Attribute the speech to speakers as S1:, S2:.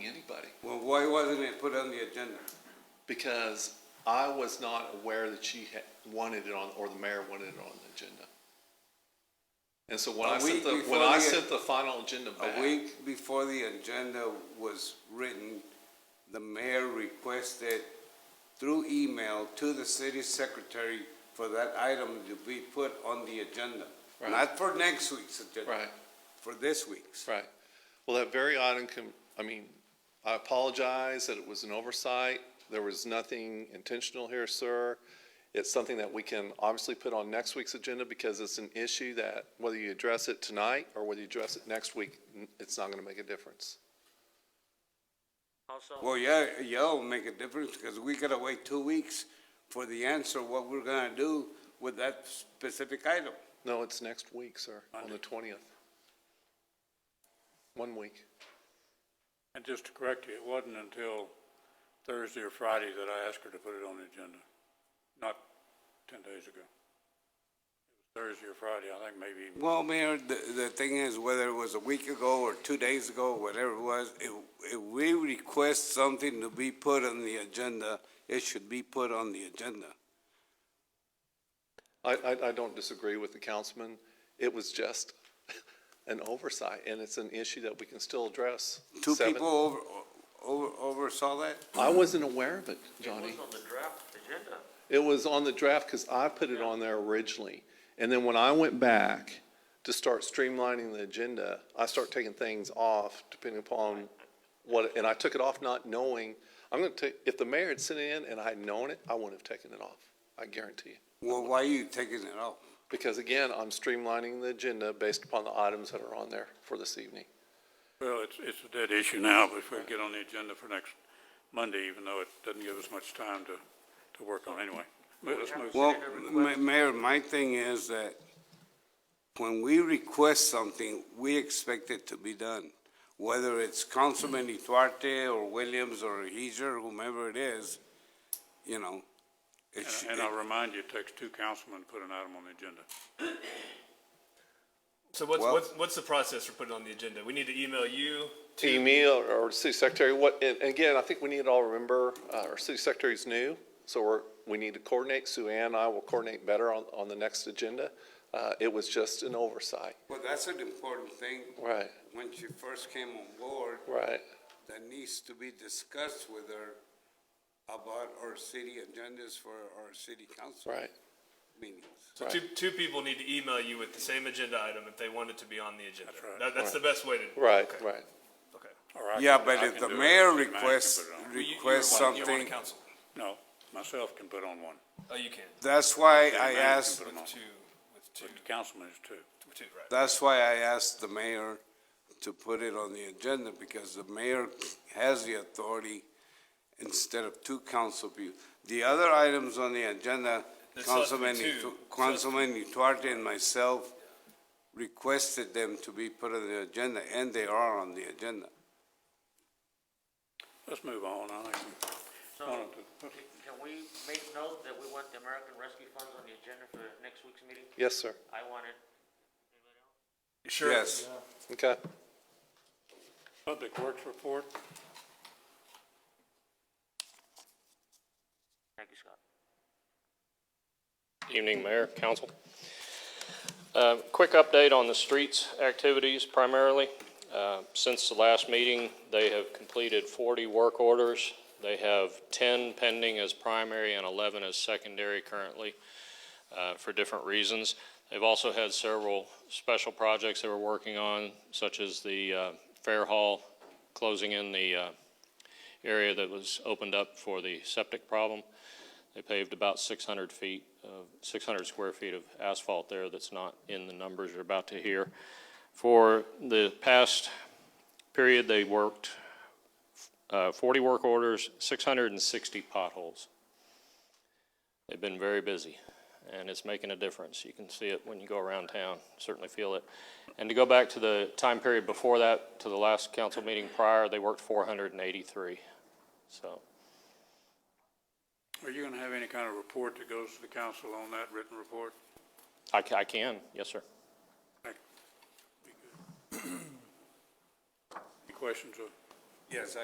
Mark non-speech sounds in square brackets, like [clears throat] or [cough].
S1: Why wasn't it put on the agenda?
S2: because I was not aware that she had wanted it on, or the mayor wanted it on the agenda. And so when
S1: A
S2: I sent
S1: week
S2: the,
S1: before
S2: when I
S1: the-
S2: sent the final agenda back,
S1: A week before the agenda was written, the mayor requested through email to the city secretary for that item to be put on the agenda.
S2: Right.
S1: Not for next week's agenda,
S2: right,
S1: for this week's.
S2: right. Well, that very item, com- I mean, I apologize that it was an oversight. There was nothing intentional here, sir. It's something that we can obviously put on next week's agenda because it's an issue that whether you address it tonight or whether you address it next week, n- it's not gonna make a difference.
S3: Also,
S1: Well, yeah, y'all make a difference because we gotta wait two weeks for the answer, what we're gonna do with that specific item.
S2: No, it's next week, sir, on the twentieth. One week.
S4: And just to correct you, it wasn't until Thursday or Friday that I asked her to put it on the agenda, not ten days ago. It was Thursday or Friday, I think maybe even
S1: Well, Mayor, the, the thing is, whether it was a week ago or two days ago, whatever it was, if, if we request something to be put on the agenda, it should be put on the agenda.
S2: I, I, I don't disagree with the councilman. It was just [laughs] an oversight, and it's an issue that we can still address.
S1: Two
S2: Seven-
S1: people over, over, oversaw that?
S2: I wasn't aware of it,
S3: it
S2: Johnny.
S3: was on the draft agenda.
S2: It was on the draft because I put it on there originally. And then when I went back to start streamlining the agenda, I start taking things off depending upon what, and I took it off not knowing. I'm going to take, if the mayor had sent it in and I had known it, I wouldn't have taken it off. I guarantee you.
S1: Well, why are you taking it off?
S2: Because again, I'm streamlining the agenda based upon the items that are on there for this evening.
S4: Well, it's, it's a dead issue now, but if we get on the agenda for next Monday, even though it doesn't give us much time to, to work on anyway. But Let's move.
S1: Well, Ma- Mayor, my thing is that when we request something, we expect it to be done. Whether it's Councilman Duarte or Williams or Heiser, whomever it is, you know. it sh-
S4: And- And I'll remind you, it takes two councilmen to put an item on the agenda.
S5: So what's,
S1: Well-
S5: what's, what's the process for putting it on the agenda? We need to email you.
S2: To me or, or city secretary, what, and and again, I think we need to all remember, uh, our city secretary's new, so we're, we need to coordinate. Sue Ann and I will coordinate better on, on the next agenda. Uh, it was just an oversight.
S1: Well, that's an important thing.
S2: Right,
S1: When she first came on board,
S2: right.
S1: that needs to be discussed with her about our city agendas for our city council
S2: Right.
S1: meetings.
S5: So two, two people need to email you with the same agenda item if they want it to be on the agenda.
S4: That's right.
S5: That, that's the best way to.
S2: Right,
S5: okay,
S2: right.
S5: Okay.
S4: Or I
S1: Yeah,
S4: can-
S1: but
S4: I
S1: if
S4: can
S1: the
S4: do it.
S1: mayor
S4: City manager can
S1: requests,
S4: put it on.
S5: You- you
S1: requests
S5: were one- you were one
S1: something,
S5: council.
S4: No, myself can put on one,
S5: Oh, you can.
S1: that's why
S4: City
S1: I
S4: manager can
S1: asked
S4: put it on.
S5: With two, with two,
S4: but the councilman is two.
S5: with two, right.
S1: That's why I asked the mayor to put it on the agenda, because the mayor has the authority instead of two council people. The other items on the agenda,
S5: It's us
S1: Councilman,
S5: two.
S1: Itu- Councilman Duarte and myself requested them to be put on the agenda, and they are on the agenda.
S4: Let's move on, I think.
S3: So
S4: One of the-
S3: can we make note that we want the American Rescue Funds on the agenda for next week's meeting?
S2: Yes, sir.
S3: I want it.
S5: Sure.
S1: Yes,
S2: Okay.
S4: Public Works report,
S3: Thank you, Scott.
S6: Evening, Mayor, Council. Uh, Quick update on the streets activities primarily. Uh, Since the last meeting, they have completed 40 work orders. They have 10 pending as primary and 11 as secondary currently uh, for different reasons. They've also had several special projects they were working on, such as the uh, Fair Hall, closing in the uh, area that was opened up for the septic problem. They paved about 600 feet, of- 600 square feet of asphalt there that's not in the numbers you're about to hear. For the past period, they worked uh, 40 work orders, 660 potholes. They've been very busy, and it's making a difference. You can see it when you go around town, certainly feel it. And to go back to the time period before that, to the last council meeting prior, they worked 483, so.
S4: are you gonna have any kind of report that goes to the council on that written report?
S6: I, ca- I can, yes, sir.
S4: Thank you. [clears throat] Any questions of
S1: yes, I